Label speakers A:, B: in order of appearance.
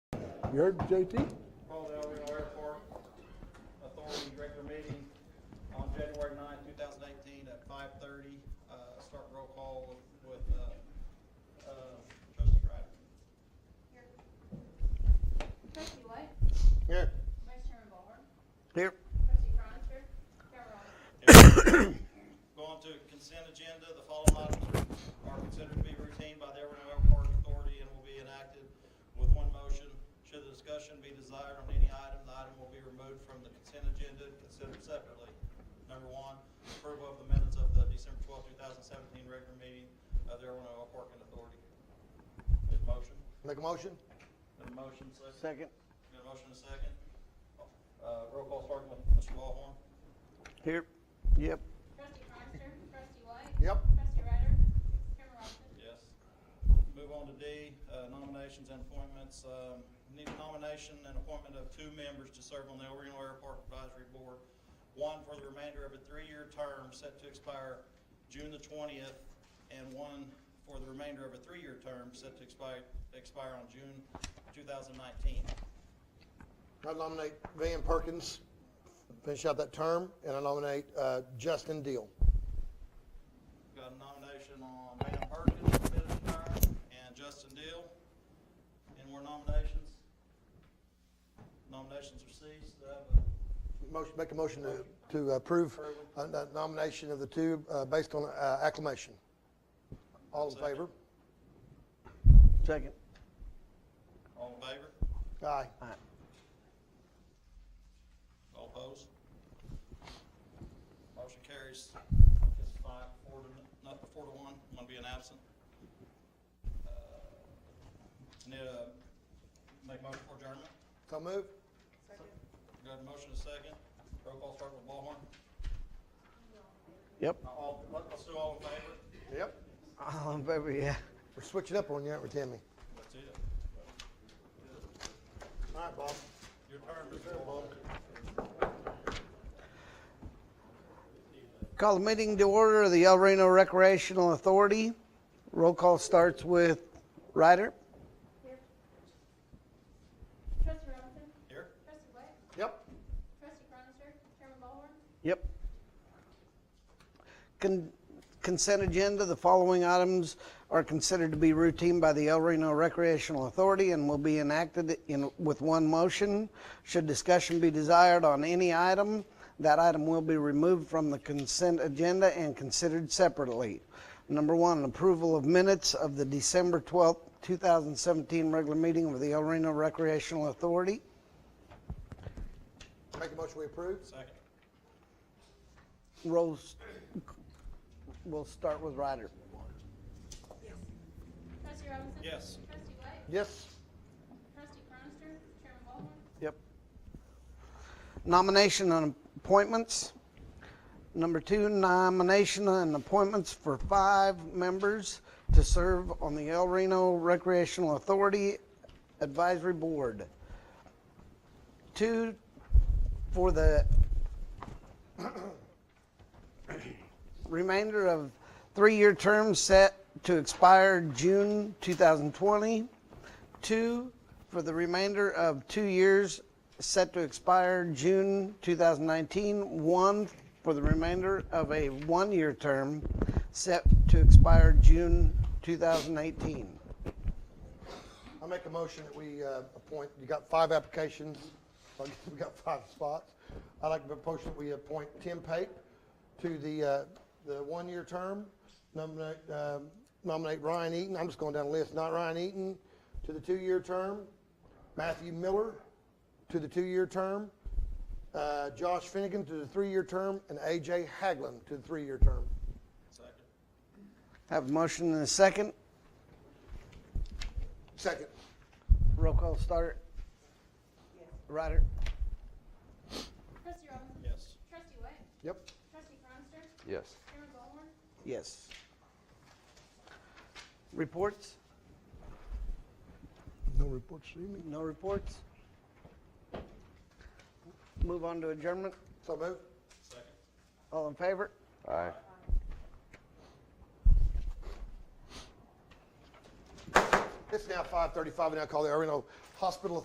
A: You heard JT?
B: Paul Delville Airport Authority regular meeting on January 9, 2018 at 5:30. Uh, Start roll call with with, uh, uh, trustee Ryder.
C: Trustee White,
B: Here.
C: Vice Chairman Ballhorn,
D: Here.
C: Trustee Cronister, Chair Rollins.
B: Going to consent agenda, the following items are considered to be routine by the Everino Airport Authority and will be enacted with one motion. Should the discussion be desired on any item, the item will be removed from the consent agenda and considered separately. Number one, approval of the minutes of the December twelfth, two thousand seventeen regular meeting of the Everino Airport Authority. Need a motion?
D: Make a motion?
B: Need a motion, second?
D: Second.
B: Need a motion, and a second? Uh, roll call starting with Mr. Ballhorn.
D: Here. Yep.
C: Trustee Cronister, Trustee White.
D: Yep.
C: Trustee Ryder, Chairman Robinson.
B: Yes. Move on to D, uh, nominations and appointments. Um, Need a nomination and appointment of two members to serve on the El Reno Airport Advisory Board. One for the remainder of a three-year term set to expire June the twentieth, and one for the remainder of a three-year term set to expire, expire on June two thousand nineteen.
D: I nominate Van Perkins, finish out that term, and I nominate uh, Justin Deal.
B: Got a nomination on Van Perkins, for fifth term, and Justin Deal. Any more nominations? Nominations are ceased. Do I have a
D: Motion, make a motion to, to approve uh, the nomination of the two uh, based on uh, acclamation. All in favor? Second.
B: All in favor?
D: Aye.
B: All opposed? Motion carries. It's five, four to, not four to one, one being absent. Uh, Need a, make motion for adjournment?
D: So move?
B: Got a motion and a second. Roll call start with Ballhorn.
E: Yep.
B: All, let- let's do all in favor.
D: Yep.
E: All in favor, yeah.
D: We're switching up on you, aren't we, Timmy?
B: That's it.
D: All right, Bob.
B: Your turn, Mr. Ballhorn.
E: Call the meeting to order of the El Reno Recreational Authority. Roll call starts with Ryder.
C: Trustee Robinson,
B: Here?
C: Trustee White,
D: Yep.
C: Trustee Cronister, Chairman Ballhorn,
E: Yep. Con- Consent agenda, the following items are considered to be routine by the El Reno Recreational Authority and will be enacted in, with one motion. Should discussion be desired on any item, that item will be removed from the consent agenda and considered separately. Number one, approval of minutes of the December 12th, 2017 regular meeting of the El Reno Recreational Authority.
D: Make a motion we approve?
B: Second.
E: Rose, we'll start with Ryder.
C: Trustee Robinson.
B: Yes.
C: Trustee White,
D: Yes.
C: Trustee Cronister, Chairman Ballhorn,
E: Yep. Nomination and appointments. Number two, nomination and appointments for five members to serve on the El Reno Recreational Authority Advisory Board. Two, for the remainder of three-year term set to expire June 2020. Two, for the remainder of two years set to expire June 2019. One, for the remainder of a one-year term set to expire June 2018.
D: I make a motion that we uh, appoint, you got five applications, I guess we got five spots. I'd like to propose that we appoint Tim Pape to the, uh, the one-year term, nominate, um, nominate Ryan Eaton, I'm just going down the list, not Ryan Eaton, to the two-year term, Matthew Miller to the two-year term, uh, Josh Finnegan to the three-year term, and AJ Haglund to the three-year term.
B: Second.
E: Have a motion and a second.
D: Second.
E: Roll call start. Ryder?
C: Trustee Robinson.
B: Yes.
C: Trustee White,
D: Yep.
C: Trustee Cronister,
F: Yes.
C: Chairman Ballhorn,
E: Yes. Reports?
D: No reports this evening.
E: No reports? Move on to adjournment.
D: So move.
B: Second.
E: All in favor?
F: Aye.
D: It's now 5:35, and I call the Orlando Hospital